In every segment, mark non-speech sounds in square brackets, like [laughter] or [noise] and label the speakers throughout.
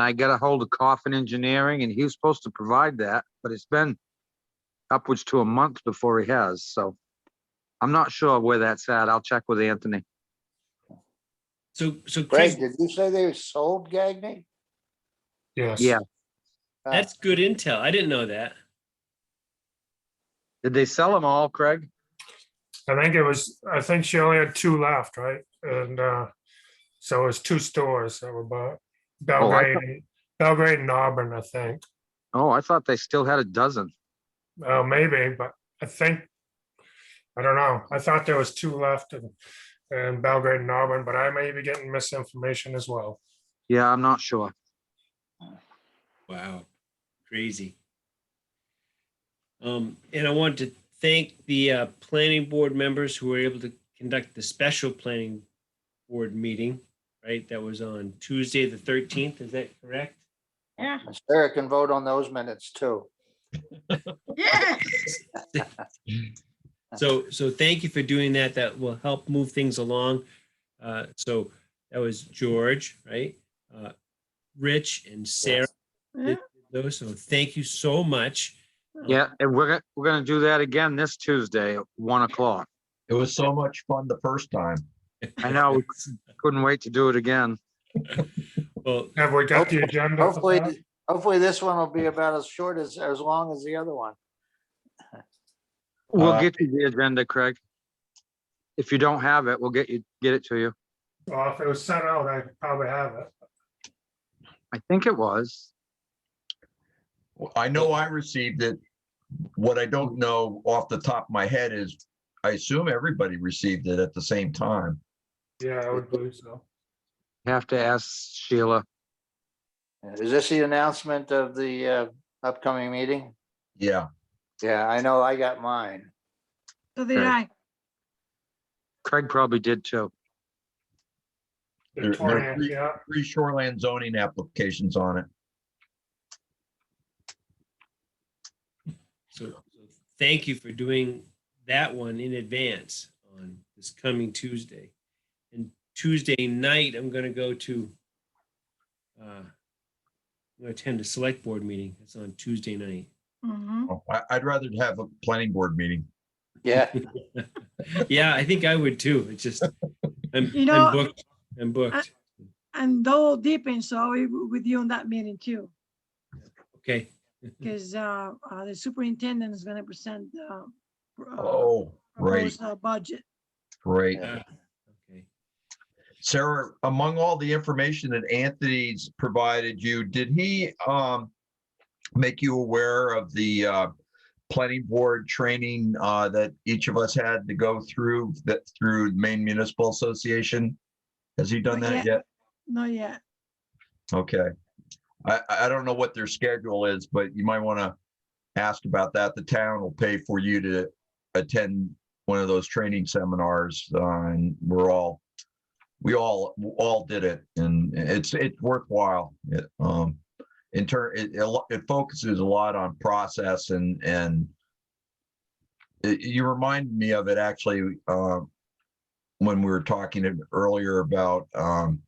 Speaker 1: I got a hold of Coffin Engineering and he was supposed to provide that, but it's been upwards to a month before he has, so I'm not sure where that's at. I'll check with Anthony.
Speaker 2: So, so Chris,
Speaker 3: Greg, did you say they sold Gagny?
Speaker 4: Yes.
Speaker 1: Yeah.
Speaker 3: Uh,
Speaker 2: that's good intel. I didn't know that.
Speaker 1: Did they sell them all, Craig?
Speaker 4: I think it was, I think she only had two left, right? And uh, so it was two stores that were bought.
Speaker 3: Oh,
Speaker 4: Belgrade, and- Belgrade and Auburn, I think.
Speaker 1: Oh, I thought they still had a dozen.
Speaker 4: Uh, maybe, but I think, I don't know. I thought there was two left and, and Belgrade and Auburn, but I may be getting misinformation as well.
Speaker 1: Yeah, I'm not sure.
Speaker 2: Wow, crazy. Um, and I want to thank the uh, planning board members who were able to conduct the special planning board meeting, right? That was on Tuesday, the thirteenth. Is that correct?
Speaker 5: Yeah,
Speaker 3: Sarah can vote on those minutes too.
Speaker 5: yeah.
Speaker 2: So, so thank you for doing that. That will help move things along. Uh, so that was George, right? Uh, Rich and Sarah,
Speaker 5: Yeah.
Speaker 2: those, so thank you so much.
Speaker 1: Yeah, and we're, gonna we're gonna do that again this Tuesday at one o'clock.
Speaker 6: It was so much fun the first time.
Speaker 1: I know, we couldn't wait to do it again.
Speaker 2: Well,
Speaker 4: Have we got the agenda? for
Speaker 3: Hopefully,
Speaker 4: that?
Speaker 3: hopefully this one will be about as short as, as long as the other one.
Speaker 1: We'll
Speaker 6: Uh,
Speaker 1: get you the agenda, Craig. If you don't have it, we'll get you, get it to you.
Speaker 4: Well, if it was sent out, I probably have it.
Speaker 1: I think it was.
Speaker 6: Well, I know I received it. What I don't know off the top of my head is, I assume everybody received it at the same time.
Speaker 4: Yeah, I would believe so.
Speaker 1: Have to ask Sheila.
Speaker 3: Is this the announcement of the uh, upcoming meeting?
Speaker 6: Yeah,
Speaker 3: Yeah, I know I got mine.
Speaker 5: So did
Speaker 1: Okay.
Speaker 5: I.
Speaker 1: Craig probably did too.
Speaker 4: The
Speaker 6: There- there-
Speaker 4: 20th, yeah.
Speaker 6: three shoreland zoning applications on it.
Speaker 2: So so thank you for doing that one in advance on this coming Tuesday. And Tuesday night, I'm going to go to, uh, I'm going to attend a select board meeting. It's on Tuesday night.
Speaker 5: Mhm.
Speaker 6: Oh, I, I'd rather have a planning board meeting.
Speaker 3: Yeah,
Speaker 2: Yeah, I think I would too. It's just, I'm
Speaker 5: You
Speaker 2: I'm
Speaker 5: know,
Speaker 2: booked, I'm booked.
Speaker 5: And though deep in, so I'll be w- with you on that meeting too, [laughs]
Speaker 2: Okay,
Speaker 6: Mm.
Speaker 5: because uh, uh, the superintendent is gonna present uh, pr- uh,
Speaker 6: Oh, right,
Speaker 5: proposed, uh, budget.
Speaker 6: right.
Speaker 2: okay. [laughs]
Speaker 6: Sarah, among all the information that Anthony's provided you, did he um make you aware of the uh planning board training uh that each of us had to go through that through Maine Municipal Association? Has he done
Speaker 5: Not
Speaker 6: that yet?
Speaker 5: No, yeah,
Speaker 6: Okay. I I I don't know what their schedule is, but you might want to ask about that. The town will pay for you to attend one of those training seminars uh, and we're all we all all did it and it's it's worthwhile. It, um in turn it it lo- it focuses a lot on process and and it- you remind me of it actually uh, when we were talking earlier about um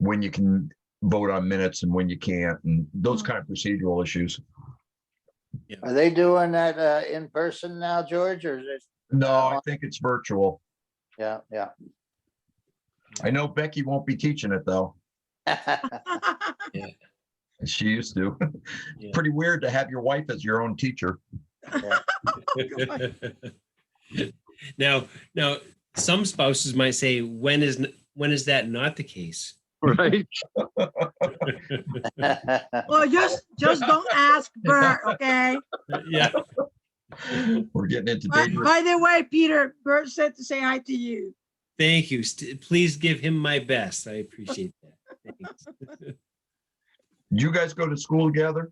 Speaker 6: when you can vote on minutes and when you can't and those
Speaker 5: Mhm.
Speaker 6: kind of procedural issues.
Speaker 3: [laughs] are they doing that uh, in person now, George, or is it?
Speaker 6: No, I think it's virtual.
Speaker 3: Yeah,
Speaker 6: I know Becky won't be teaching it though.
Speaker 3: yeah.
Speaker 6: Uh, She used to. [laughs]
Speaker 2: Yeah.
Speaker 6: Pretty weird to have your wife as your own teacher.
Speaker 2: Now, now, some spouses might say, when is, n- when is that not the case?
Speaker 1: Right?
Speaker 5: [laughs]
Speaker 3: [laughs]
Speaker 5: well, just, just don't ask
Speaker 6: [laughs]
Speaker 5: Bert, okay?
Speaker 2: Yeah.
Speaker 6: We're getting into
Speaker 5: By
Speaker 6: dangerous.
Speaker 5: by the way, Peter, Bert said to say hi to you.
Speaker 2: Thank you. St- Please give him my best. I appreciate that. Thanks.
Speaker 6: You guys go to school together?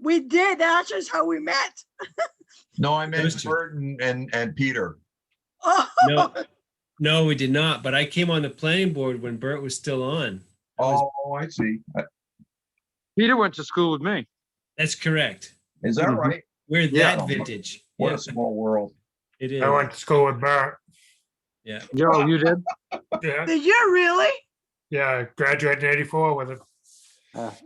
Speaker 5: We did, that's just how we met. [laughs]
Speaker 6: No, I meant
Speaker 2: Those two.
Speaker 6: Bert and, and, and Peter.
Speaker 5: Oh,
Speaker 2: No, no, we did not. But I came on the planning board when Bert was still on.
Speaker 6: Oh, I see. I-
Speaker 1: Peter went to school with me.
Speaker 2: That's correct.
Speaker 6: Is that
Speaker 1: Mhm.
Speaker 6: right?
Speaker 2: We're
Speaker 1: Yeah.
Speaker 2: that vintage.
Speaker 6: What a
Speaker 2: Yes,
Speaker 6: small world.
Speaker 2: it is.
Speaker 4: I went to school with Bert.
Speaker 1: Yo, you did?
Speaker 4: Yeah,
Speaker 5: did you really?
Speaker 4: yeah, I graduated in eighty-four with it.
Speaker 3: Uh,